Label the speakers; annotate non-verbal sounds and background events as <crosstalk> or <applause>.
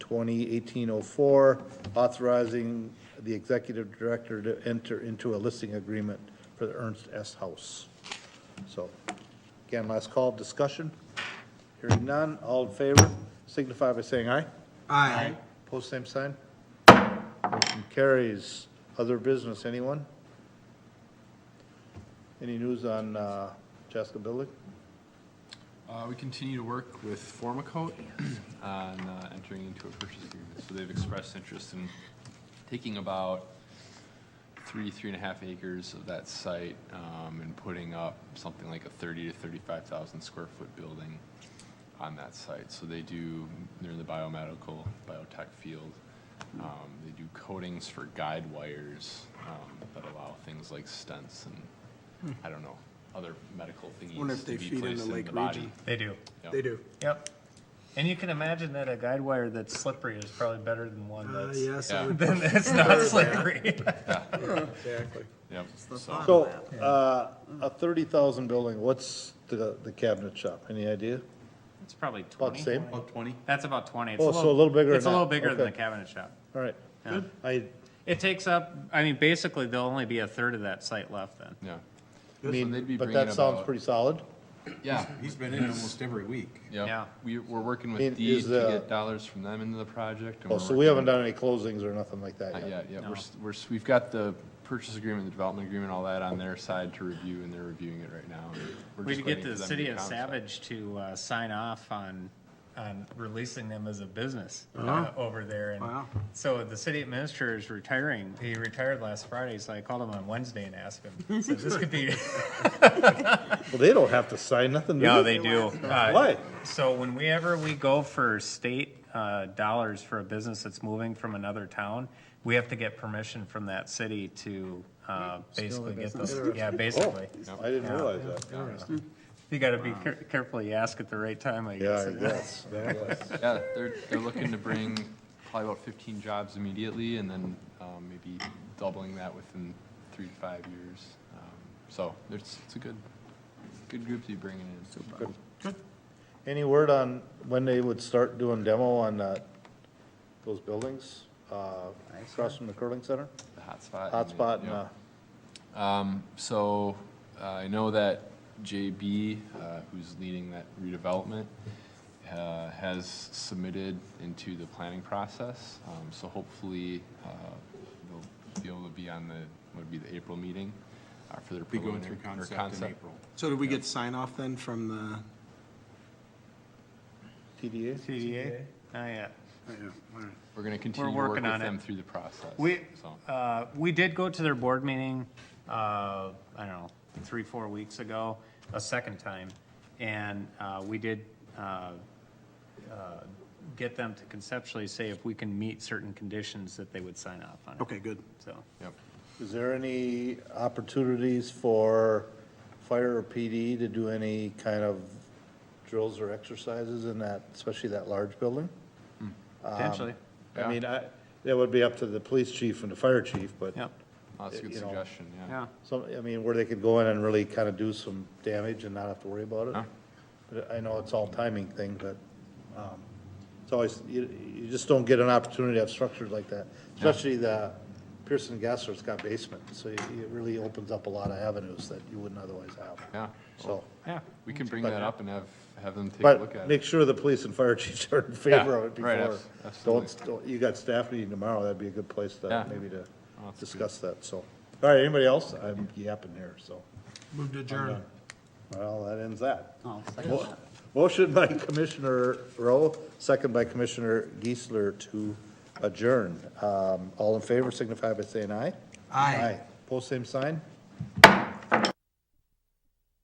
Speaker 1: twenty eighteen oh four, authorizing the executive director to enter into a listing agreement for the Ernst S. House. So, again, last call, discussion. Hearing none, all in favor, signify by saying aye.
Speaker 2: Aye.
Speaker 1: Post same sign. Motion carries. Other business, anyone? Any news on uh, Jessica Billig?
Speaker 3: Uh, we continue to work with Formicote <clears throat> on uh, entering into a purchase agreement. So they've expressed interest in taking about three, three and a half acres of that site um, and putting up something like a 30 to 35,000 square foot building on that site. So they do, they're in the biomedical, biotech field. Um, They do coatings for guide wires um, that allow things like stents and, I don't know, other medical
Speaker 2: Hmm. Wonder
Speaker 3: thingies
Speaker 2: if
Speaker 3: to
Speaker 2: they
Speaker 3: be
Speaker 2: feed into
Speaker 3: placed in
Speaker 2: Lake
Speaker 3: the body.
Speaker 2: Region.
Speaker 4: They do.
Speaker 3: Yep.
Speaker 2: They do.
Speaker 4: Yep. And you can imagine that a guide wire that's slippery is probably better than one
Speaker 2: Uh,
Speaker 4: that's,
Speaker 2: yes, I
Speaker 3: Yeah.
Speaker 4: <laughs>
Speaker 2: would,
Speaker 4: than
Speaker 1: <laughs>
Speaker 4: that's not slippery.
Speaker 2: exactly.
Speaker 3: Yep, so,
Speaker 1: So, uh, a thirty thousand building, what's the, the cabinet shop? Any idea?
Speaker 5: <laughs> It's probably
Speaker 1: About the
Speaker 5: twenty.
Speaker 1: same?
Speaker 3: about twenty?
Speaker 5: That's about twenty. It's
Speaker 1: Oh, so a little bigger
Speaker 5: It's a
Speaker 1: than
Speaker 5: little
Speaker 1: that.
Speaker 5: bigger than
Speaker 1: Okay.
Speaker 5: the cabinet shop.
Speaker 1: All right.
Speaker 5: Yeah.
Speaker 1: I
Speaker 5: It takes up, I mean, basically, there'll only be a third of that site left then.
Speaker 3: Yeah. they'd
Speaker 1: mean,
Speaker 3: be
Speaker 1: but
Speaker 3: bringing
Speaker 1: that sounds
Speaker 3: about-
Speaker 1: pretty solid.
Speaker 3: Yeah,
Speaker 6: He's been in almost every week.
Speaker 3: yeah.
Speaker 5: Yeah.
Speaker 3: We, we're working
Speaker 1: I mean,
Speaker 3: with Deed
Speaker 1: is,
Speaker 3: to
Speaker 1: uh,
Speaker 3: get dollars from them into the project. and
Speaker 1: Oh,
Speaker 3: we're
Speaker 1: so we haven't
Speaker 3: working-
Speaker 1: done any closings or nothing like that
Speaker 3: Not
Speaker 1: yet.
Speaker 3: yet, yeah. We're, s- we're, s- we've got the purchase agreement, the development agreement, all that on their side to review, and they're reviewing it right now. and we're
Speaker 5: We
Speaker 3: just
Speaker 5: could get
Speaker 3: waiting
Speaker 5: the
Speaker 3: for them to
Speaker 5: city
Speaker 3: get
Speaker 5: of
Speaker 3: concept.
Speaker 5: Savage to uh, sign off on, on releasing them as a business
Speaker 1: Oh.
Speaker 5: uh, over there. And
Speaker 2: Wow.
Speaker 5: So the city administrator is retiring. He retired last Friday, so I called him on Wednesday and asked
Speaker 1: <laughs>
Speaker 5: him. So this could be.
Speaker 1: Well, they don't have to sign nothing, do
Speaker 5: No,
Speaker 1: they?
Speaker 5: they do. Uh,
Speaker 1: Why?
Speaker 5: So whenever we go for state uh, dollars for a business that's moving from another town, we have to get permission from that city to uh, basically get those, yeah, basically.
Speaker 1: I didn't realize that.
Speaker 5: You gotta be care- careful, you ask at the right time, I
Speaker 1: Yeah,
Speaker 5: guess.
Speaker 1: I guess.
Speaker 3: Yeah, they're, they're looking to bring probably about fifteen jobs immediately, and then, um, maybe doubling that within three to five years. Um, So, it's, it's a good, good group to be bringing in.
Speaker 1: Any word on when they would start doing demo on that, those buildings, uh, across from the curling center?
Speaker 3: The hotspot. and the-
Speaker 1: Hotspot and,
Speaker 3: yeah.
Speaker 1: uh,
Speaker 3: Um, So uh, I know that JB, uh, who's leading that redevelopment, uh, has submitted into the planning process. Um, So hopefully, uh, they'll be able to be on the, would be the April meeting uh, for their
Speaker 6: Be going
Speaker 3: preliminary.
Speaker 6: through
Speaker 3: or
Speaker 6: concept in April.
Speaker 2: So did we get sign off then from the?
Speaker 1: TDA?
Speaker 5: TDA? Not yet.
Speaker 3: We're going to continue to
Speaker 5: We're
Speaker 3: work with
Speaker 5: working on it.
Speaker 3: them through the process.
Speaker 5: We,
Speaker 3: so.
Speaker 5: uh, we did go to their board meeting, uh, I don't know, three, four weeks ago, a second time. And, uh, we did, uh, uh, get them to conceptually say if we can meet certain conditions that they would sign off on it.
Speaker 2: Okay, good.
Speaker 5: So,
Speaker 3: Yep.
Speaker 1: Is there any opportunities for fire or PD to do any kind of drills or exercises in that, especially that large building?
Speaker 5: potentially,
Speaker 1: I
Speaker 3: Yeah.
Speaker 1: mean, I, that would be up to the police chief and the fire chief, but
Speaker 5: yep,
Speaker 3: That's a good
Speaker 1: You know,
Speaker 3: suggestion, yeah.
Speaker 5: yeah.
Speaker 1: some, I mean, where they could go in and really kind of do some damage and not have to worry about it.
Speaker 3: Huh.
Speaker 1: But I know it's all timing thing, but, um, it's always, you, you just don't get an opportunity to have structures like that. Especially the Pearson Gasser's got basement, so it it really opens up a lot of avenues that you wouldn't otherwise have.
Speaker 3: Yeah.
Speaker 1: So,
Speaker 5: Yeah.
Speaker 3: We can bring
Speaker 1: But-
Speaker 3: that up and have, have them take a look
Speaker 1: but
Speaker 3: at it.
Speaker 1: make sure the police and fire <laughs> chiefs are in favor of it
Speaker 3: Yeah, right,
Speaker 1: before.
Speaker 3: abs-
Speaker 1: Don't,
Speaker 3: absolutely.
Speaker 1: don't- you got staff meeting tomorrow, that'd be a good place
Speaker 3: Yeah. Oh,
Speaker 1: to, maybe to
Speaker 3: that's good.
Speaker 1: discuss that, so. All right, anybody else? I'm yapping here, so.
Speaker 2: Move to adjourn.
Speaker 1: Well, that ends Oh, that. Mo- Motion by Commissioner Rowe, second by Commissioner Geisler to adjourn. Um, All in favor signify by saying aye.
Speaker 2: Aye.
Speaker 1: Post same sign.